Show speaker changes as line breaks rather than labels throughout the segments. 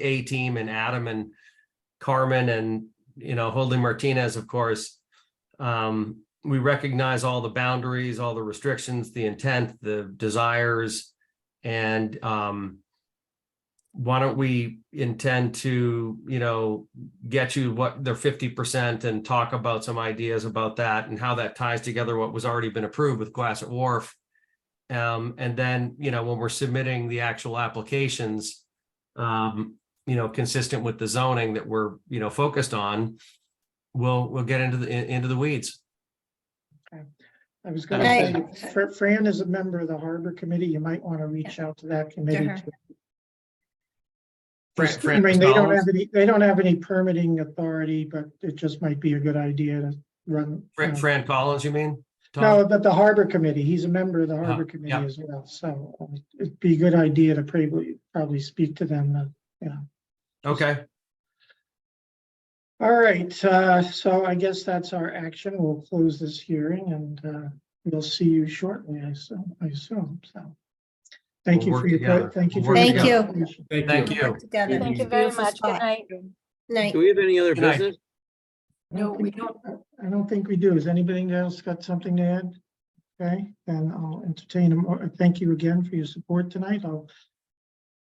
A team and Adam and Carmen and, you know, Holding Martinez, of course. Um, we recognize all the boundaries, all the restrictions, the intent, the desires. And, um, why don't we intend to, you know, get you what their fifty percent and talk about some ideas about that and how that ties together what was already been approved with Glassett Wharf. Um, and then, you know, when we're submitting the actual applications, um, you know, consistent with the zoning that we're, you know, focused on, we'll, we'll get into the, in- into the weeds.
I was gonna
Right.
say, Fr- Fran is a member of the harbor committee. You might want to reach out to that committee.
her.
too.
Fran-
Just- I
Fran
mean, they don't
Gonzalez?
have any, they don't have any permitting authority, but it just might be a good idea to run.
Fran,
uh,
Fran Collins, you mean? Tom?
No, but the harbor committee, he's a member of the
Uh-huh,
harbor committee
yeah.
as well, so uh, it'd be a good idea to probably, probably speak to them. uh,
Okay,
All right, uh, so I guess that's our action. We'll close this hearing and uh, we'll see you shortly, I assume, I assume, so. Thank
We'll
you
work
for your,
together.
que- thank you.
We'll
for
work
your
together.
presentation.
thank you.
Together.
Thank you very
Beautiful
much. Good
spot.
night.
Night.
Do we have any other
Good night.
business?
I don't think- I don't think we do. Has anybody else got something to add? Okay, then I'll entertain them. Thank you again for your support tonight. I'll-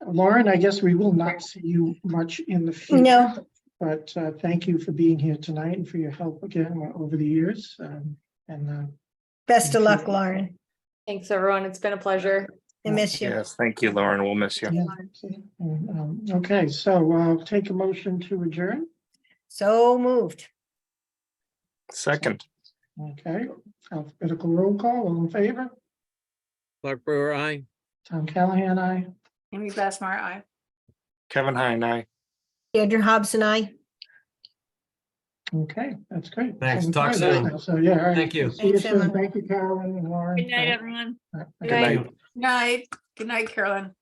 Lauren, I guess we will not see you much in the future.
No.
But uh, thank you for being here tonight and for your help again uh, over the years. um, And uh,
Best of luck, Lauren.
Thanks, everyone. It's been a pleasure.
I miss you.
Yes, thank you, Lauren. We'll miss you.
Yeah. And, um, Okay, so uh take a motion to adjourn.
So moved.
Second,
Okay, alphabetical roll call, all in favor?
Clark Brewer, aye.
Tom Callahan, aye.
Amy Glassmar, aye.
Kevin Hine, aye.
Deirdre Hobbs and I.
Okay, that's great.
Thanks.
Seven
Talk
five right
soon.
now, So, yeah. all right.
Thank you.
See you
Thanks,
soon.
Emma.
Thank you, Carolyn and Lauren.
Good night, everyone.
Bye.
Good
Good night.
night.
Thank you.
Night. Good night, Carolyn.